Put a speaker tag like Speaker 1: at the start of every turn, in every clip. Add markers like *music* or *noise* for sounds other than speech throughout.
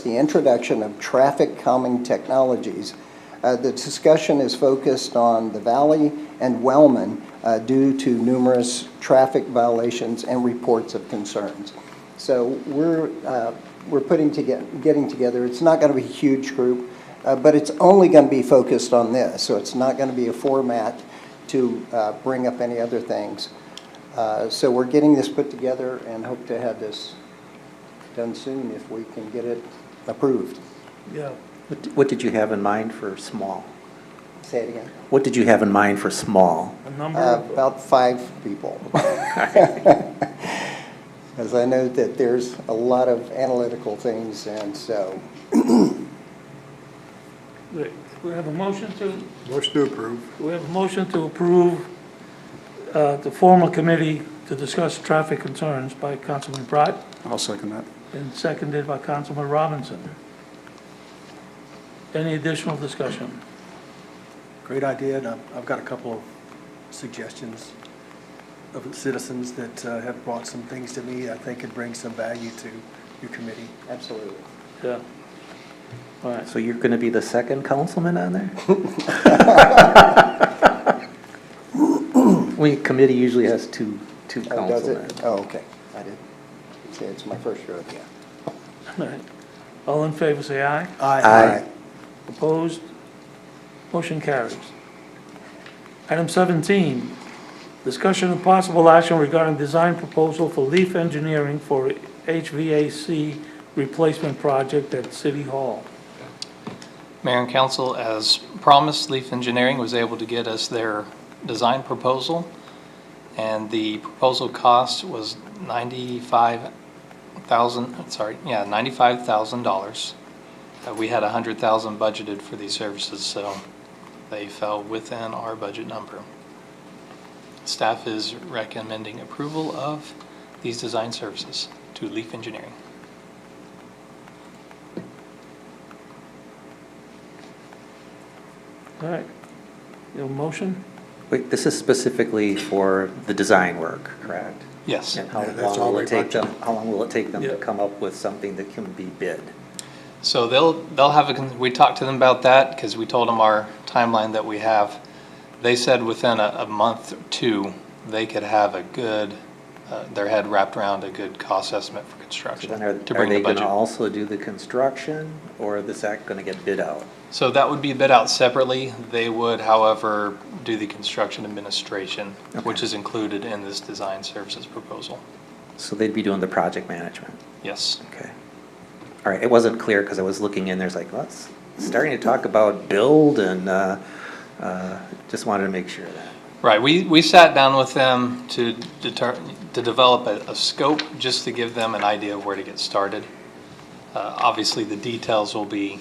Speaker 1: the introduction of traffic calming technologies. Uh, The discussion is focused on the Valley and Wellman uh, due to numerous traffic violations and reports of concerns. So we're, uh, we're putting together, getting together, it's not going to be a huge group, uh, but it's only going to be focused on this, so it's not going to be a format to uh, bring up any other things. Uh, So we're getting this put together and hope to have this done soon if we can get it approved.
Speaker 2: Yeah,
Speaker 3: What d- What did you have in mind for small?
Speaker 1: Say it again.
Speaker 3: What did you have in mind for small?
Speaker 2: a number
Speaker 1: Uh,
Speaker 2: of,
Speaker 1: About five *laughs* people. Because I know that there's a lot of analytical things, and so,
Speaker 2: wait, we have a motion to,
Speaker 4: Motion to approve.
Speaker 2: we have a motion to approve uh, to form a committee to discuss traffic concerns by Councilman Bright
Speaker 4: I'll second that.
Speaker 2: and seconded by Councilman Robinson. Any additional discussion?
Speaker 5: Great idea, and I've I've got a couple of suggestions of citizens that uh, have brought some things to me I think could bring some value to your committee.
Speaker 1: absolutely.
Speaker 2: Yeah. All right,
Speaker 3: So you're going to be the second councilman on there? We, committee usually has two, two
Speaker 1: Oh, does it?
Speaker 3: councilmen.
Speaker 1: Oh, okay. I did. See, it's my first rodeo.
Speaker 2: all right. *laughs* All in favor, say aye.
Speaker 3: Aye.
Speaker 2: Opposed? Motion carries. Item 17, discussion of possible action regarding design proposal for leaf engineering for HVAC replacement project at City Hall.
Speaker 6: Mayor and council, as promised, Leaf Engineering was able to get us their design proposal, and the proposal cost was ninety-five thousand, sorry, yeah, ninety-five thousand dollars. Uh, We had a hundred thousand budgeted for these services, so they fell within our budget number. Staff is recommending approval of these design services to Leaf Engineering.
Speaker 2: All right. Your motion?
Speaker 3: Wait, this is specifically for the design work, correct?
Speaker 6: Yes.
Speaker 3: And how
Speaker 4: Yeah, that's
Speaker 3: long
Speaker 4: all
Speaker 3: will
Speaker 4: we
Speaker 3: it take them, how long will it take them to
Speaker 2: Yeah.
Speaker 3: come up with something that can be bid?
Speaker 6: So they'll, they'll have, a con- we talked to them about that because we told them our timeline that we have. They said within a, a month or two, they could have a good, uh, their head wrapped around a good cost estimate for
Speaker 3: So
Speaker 6: construction
Speaker 3: then are,
Speaker 6: to
Speaker 3: are
Speaker 6: bring the
Speaker 3: they going to
Speaker 6: budget.
Speaker 3: also do the construction, or is that going to get bid out?
Speaker 6: So that would be bid out separately. They would, however, do the construction administration, which
Speaker 3: Okay.
Speaker 6: is included in this design services proposal.
Speaker 3: So they'd be doing the project management?
Speaker 6: Yes.
Speaker 3: Okay. All right, it wasn't clear because I was looking in, there's like, well, it's starting to talk about build and, uh, uh, just wanted to make sure of that.
Speaker 6: Right, we, we sat down with them to deter, to develop a, a scope, just to give them an idea of where to get started. Uh, obviously, the details will be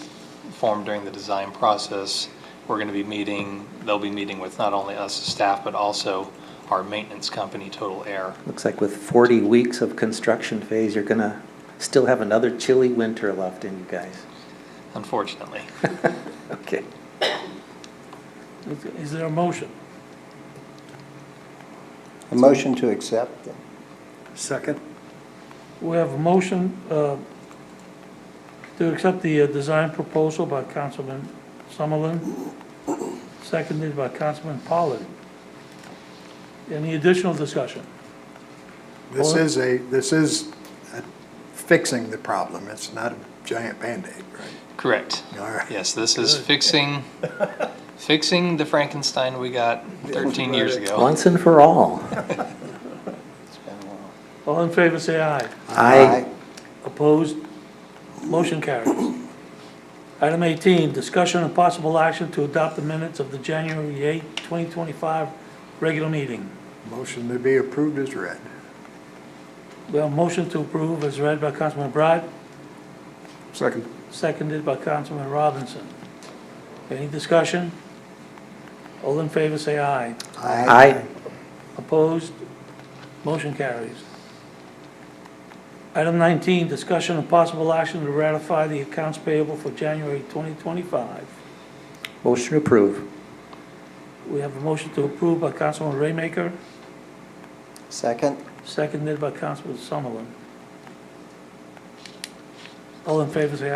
Speaker 6: formed during the design process. We're gonna be meeting, they'll be meeting with not only us as staff, but also our maintenance company, Total Air.
Speaker 3: Looks like with forty weeks of construction phase, you're gonna still have another chilly winter left in you guys.
Speaker 6: unfortunately.
Speaker 3: Okay.
Speaker 2: Is- Is there a motion?
Speaker 1: A motion to accept.
Speaker 5: Second?
Speaker 2: We have a motion uh, to accept the uh, design proposal by Councilman Summerlin, seconded by Councilman Pollard. Any additional discussion?
Speaker 4: This
Speaker 2: Well-
Speaker 4: is a, this is uh, fixing the problem. It's not a giant Band-Aid, right?
Speaker 6: Correct.
Speaker 4: All right.
Speaker 6: Yes, this is fixing, fixing the Frankenstein we got thirteen years ago.
Speaker 3: Once and for *laughs* all.
Speaker 1: It's been a while.
Speaker 2: All in favor, say aye.
Speaker 3: I,
Speaker 2: Opposed? Motion carries. Item 18, discussion and possible action to adopt the minutes of the January 8, 2025 regular meeting.
Speaker 4: Motion to be approved is read.
Speaker 2: We have a motion to approve as read by Councilman Bride,
Speaker 4: Second.
Speaker 2: seconded by Councilman Robinson. Any discussion? All in favor, say aye.
Speaker 3: I,
Speaker 2: Opposed? Motion carries. Item 19, discussion and possible action to ratify the accounts payable for January 2025.
Speaker 3: motion to approve.
Speaker 2: We have a motion to approve by Councilman Raymaker,
Speaker 1: Second?
Speaker 2: seconded by Councilman Summerlin. All in favor, say aye.